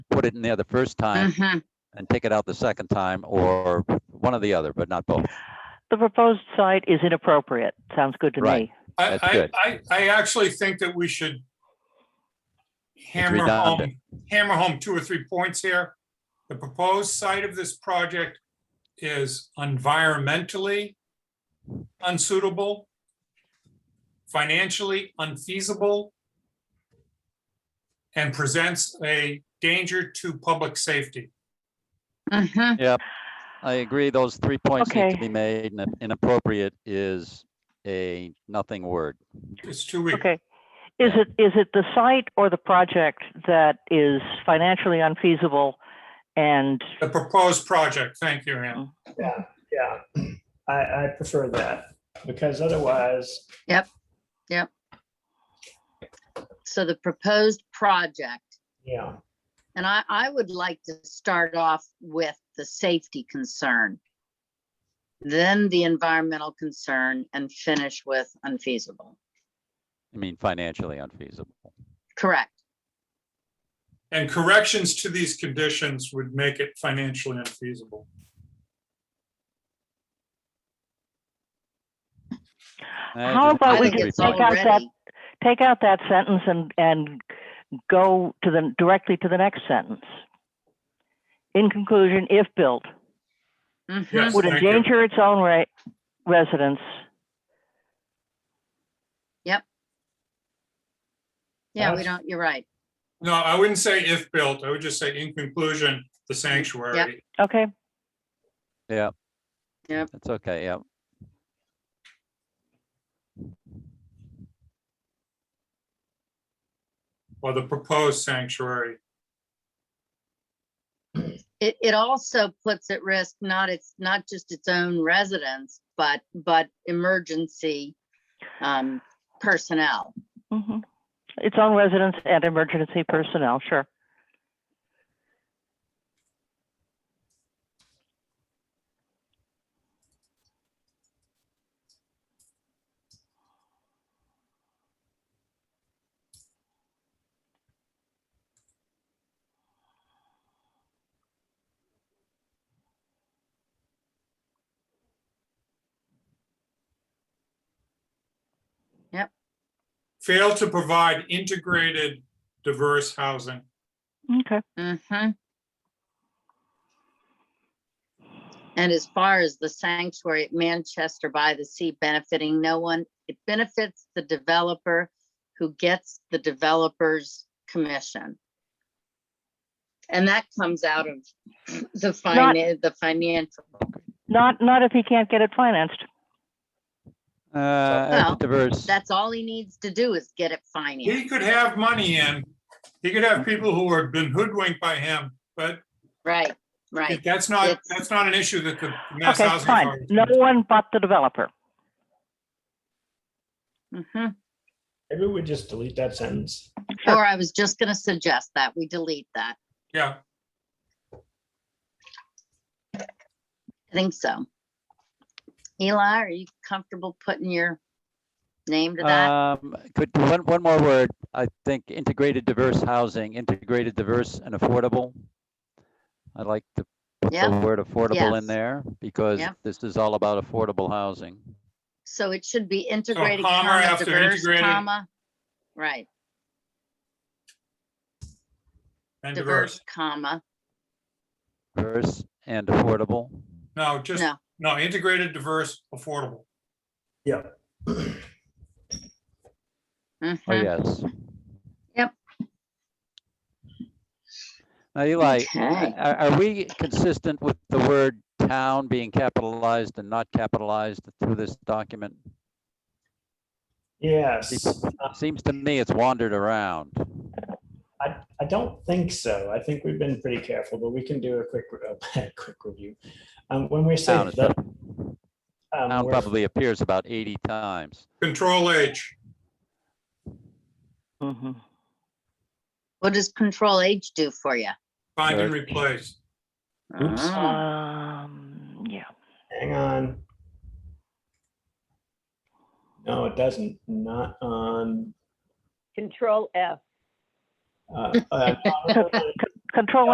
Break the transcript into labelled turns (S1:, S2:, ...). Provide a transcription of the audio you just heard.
S1: put it in there the first
S2: Mm.
S1: time
S3: Mhm.
S1: and take it out the second time, or one or the other, but not both.
S2: The proposed site is inappropriate. Sounds good to
S1: Right.
S2: me.
S4: I,
S1: That's
S4: I,
S1: good.
S4: I, I actually think that we should hammer
S1: redundant.
S4: home, hammer home two or three points here. The proposed site of this project is environmentally unsuitable, financially unfeasible, and presents a danger to public safety.
S3: Mhm.
S1: I agree, those three points need to
S2: Okay.
S1: be made, and inappropriate is a nothing word.
S4: It's too weak.
S2: Okay. Is it, is it the site or the project that is financially unfeasible and
S4: The proposed project, thank you, Ann.
S5: Yeah, yeah. I, I prefer that because otherwise,
S3: So the proposed project,
S5: yeah,
S3: and I, I would like to start off with the safety concern, then the environmental concern, and finish with unfeasible.
S1: I mean, financially unfeasible.
S3: Correct.
S4: And corrections to these conditions would make it financially unfeasible.
S1: I
S2: How
S1: just-
S2: about
S3: I
S2: Oh,
S1: those
S2: we
S3: think
S2: just
S1: three
S3: it's
S2: take
S1: points.
S2: out that-
S3: already-
S2: take out that sentence and, and go to the, directly to the next sentence? In conclusion, if built,
S3: Mhm.
S4: Yes,
S2: would
S4: thank you.
S2: endanger its own ra- residents.
S3: Yeah, we
S5: That's-
S3: don't, you're right.
S4: No, I wouldn't say if built, I would just say in conclusion, the sanctuary.
S2: Okay,
S1: Yeah.
S3: Yep.
S1: That's okay, yeah.
S4: Or the proposed sanctuary.
S3: It, it also puts at risk not its, not just its own residents, but, but emergency um, personnel.
S2: hmm Its own residents and emergency personnel, sure.
S4: Fail to provide integrated, diverse housing.
S2: Okay.
S3: Mm-hmm. And as far as the sanctuary at Manchester by the Sea benefiting no one, it benefits the developer who gets the developer's commission. And that comes out of the finance, the financial,
S2: Not, not if he can't get it financed.
S1: Uh, as
S3: Well,
S1: diverse,
S3: that's all he needs to do is get it
S4: He
S3: financed,
S4: could have money in, he could have people who have been hoodwinked by him, but
S3: right, right.
S4: that's not,
S3: It's-
S4: that's not an issue that the Mass
S2: Okay,
S4: Housing
S2: fine.
S4: Authority.
S2: No one but the developer.
S3: Mhm.
S5: maybe we just delete that sentence.
S2: Sure.
S3: Or I was just gonna suggest that, we delete that,
S4: Yeah,
S3: I think so. Eli, are you comfortable putting your name to that?
S1: um, could, one, one more word, I think integrated diverse housing, integrated diverse and affordable. I'd like to put the
S3: Yep.
S1: word affordable
S3: Yes.
S1: in there, because
S3: Yep.
S1: this is all about affordable housing.
S3: So it should be integrated,
S4: comma
S3: comma,
S4: after
S3: diverse,
S4: integrated.
S3: comma, right,
S4: and diverse.
S3: diverse, comma,
S1: Diverse and affordable,
S4: No, just,
S3: No.
S4: no, integrated, diverse, affordable.
S5: Yeah.
S1: oh,
S3: mhm,
S1: yes.
S3: Yep.
S1: Now, Eli,
S3: Okay.
S1: Are, are we consistent with the word town being capitalized and not capitalized through this document?
S5: Yes, Uh,
S1: Seems to me it's wandered around.
S5: I, I don't think so. I think we've been pretty careful, but we can do a quick, a quick review. Um, when we say
S1: Town is
S5: the. um,
S1: Town
S5: we're-
S1: probably appears about 80 times.
S4: Control H,
S2: hmm
S3: What does control H do for you?
S4: find and
S1: Right.
S4: replace.
S5: Oops.
S3: Oh,
S2: Um, yeah.
S5: Hang on. No, it doesn't, not on,
S6: Control F.
S5: uh, uh, no, no, no,
S2: control